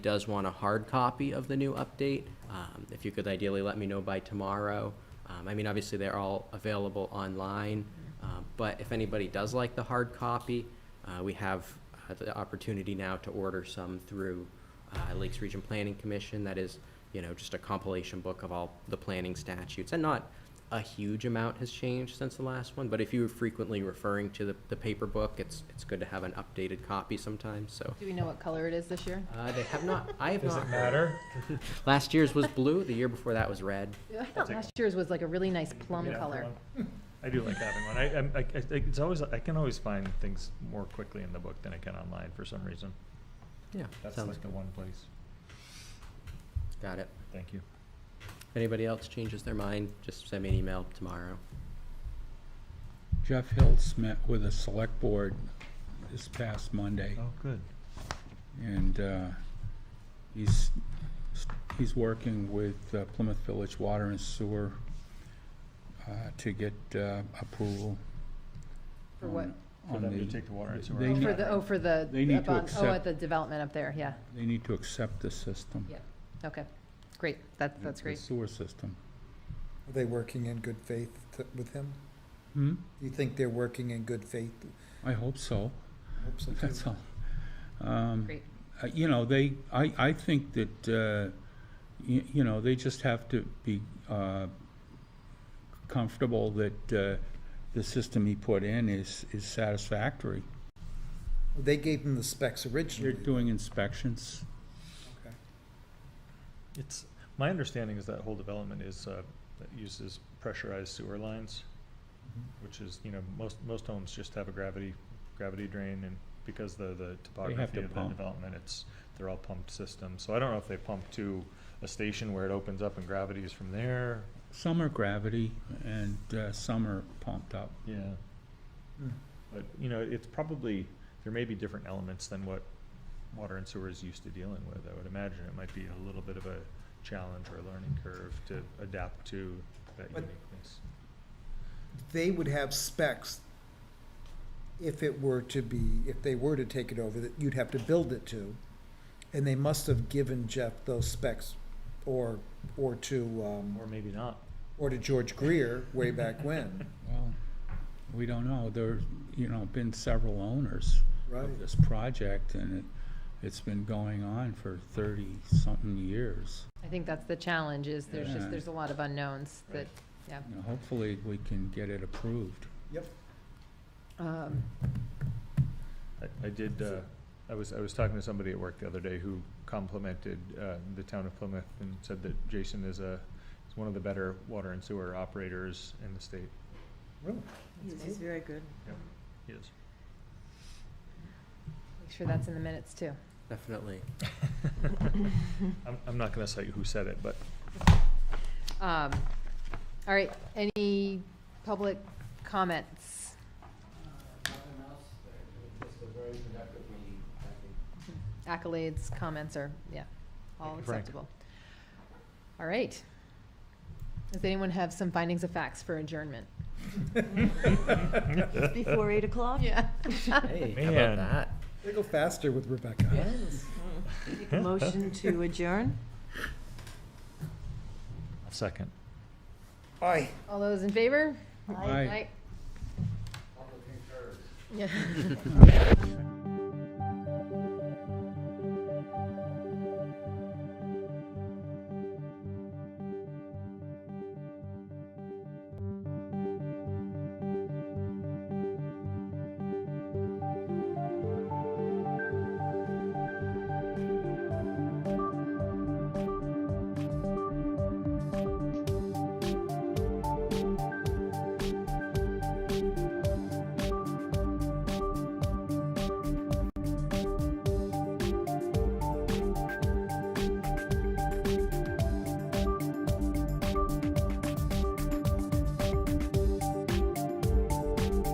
does want a hard copy of the new update, um, if you could ideally let me know by tomorrow. Um, I mean, obviously, they're all available online, um, but if anybody does like the hard copy, uh, we have uh, the opportunity now to order some through uh, Lakes Region Planning Commission. That is, you know, just a compilation book of all the planning statutes, and not a huge amount has changed since the last one, but if you were frequently referring to the, the paper book, it's, it's good to have an updated copy sometimes, so. Do we know what color it is this year? Uh, they have not, I have Does not. it matter? Last year's was blue, the year before that was red. I thought take last year's was like a really nice plum Yeah, color. plum. I do like having one. I, I'm- I, I, it's always, I can always find things more quickly in the book than I can online for some reason. Yeah, That's sounds, like the one place. got it. Thank you. If anybody else changes their mind, just send me an email tomorrow. Jeff Hiltz met with the select board this past Monday, Oh, good. and uh, he's, he's working with uh, Plymouth Village Water and Sewer uh, to get uh, approval. For what? on- For on them to the- take the water and sewer they Oh, out. need- For the, oh, for the, They need up to on- oh, at accept- the development up there, yeah. They need to accept the system. Yeah. Okay, great. That, that's the great. sewer system. Are they working in good faith t- with him? Hmm, Do you think they're working in good faith? I hope so, Hope so, too. that's all. Um, Great. uh, you know, they, I, I think that, uh, you, you know, they just have to be, uh, comfortable that, uh, the system he put in is, is satisfactory. They gave him the specs They're originally. doing inspections. Okay. It's, my understanding is that whole development is, uh, that uses pressurized sewer lines, Mm-hmm. which is, you know, most, most homes just have a gravity, gravity drain and because the, the have topography to of the pump. development, it's, they're all pumped systems. So I don't know if they pump to a station where it opens up and gravity is from there. Some are gravity and, uh, some are pumped up. Yeah. Mm. But, you know, it's probably, there may be different elements than what water and sewer is used to dealing with. I would imagine it might be a little bit of a challenge or a learning curve to adapt to that But- uniqueness. They would have specs if it were to be, if they were to take it over, that you'd have to build it to. And they must have given Jeff those specs or, or to, Or um, maybe not. or to George Greer way back when, Well, we don't know. There's, you know, been several owners right? of this project and it, it's been going on for thirty-something years. I think that's the challenge is there's Yeah. just, there's a lot of unknowns that, Right. yeah. You know, hopefully we can get it approved. Yep. Um, I, I did, uh, I was, I was talking to somebody at work the other day who complimented, uh, the town of Plymouth and said that Jason is a, is one of the better water and sewer operators in the state. Really? He's, he's very good. He is. Make sure that's in the minutes too. Definitely. I'm, I'm not gonna cite who said it, but Um, All right, any public comments? Nothing else, uh, just a very productive meeting, I think. Accolades, comments are, yeah, all Thank you, Frank. acceptable. All right. Does anyone have some findings of facts for adjournment? Before eight o'clock? Yeah. Hey, how about Man. that? They go faster with Rebecca. Make a motion to adjourn? second. Aye. All those in favor? Aye. Yeah.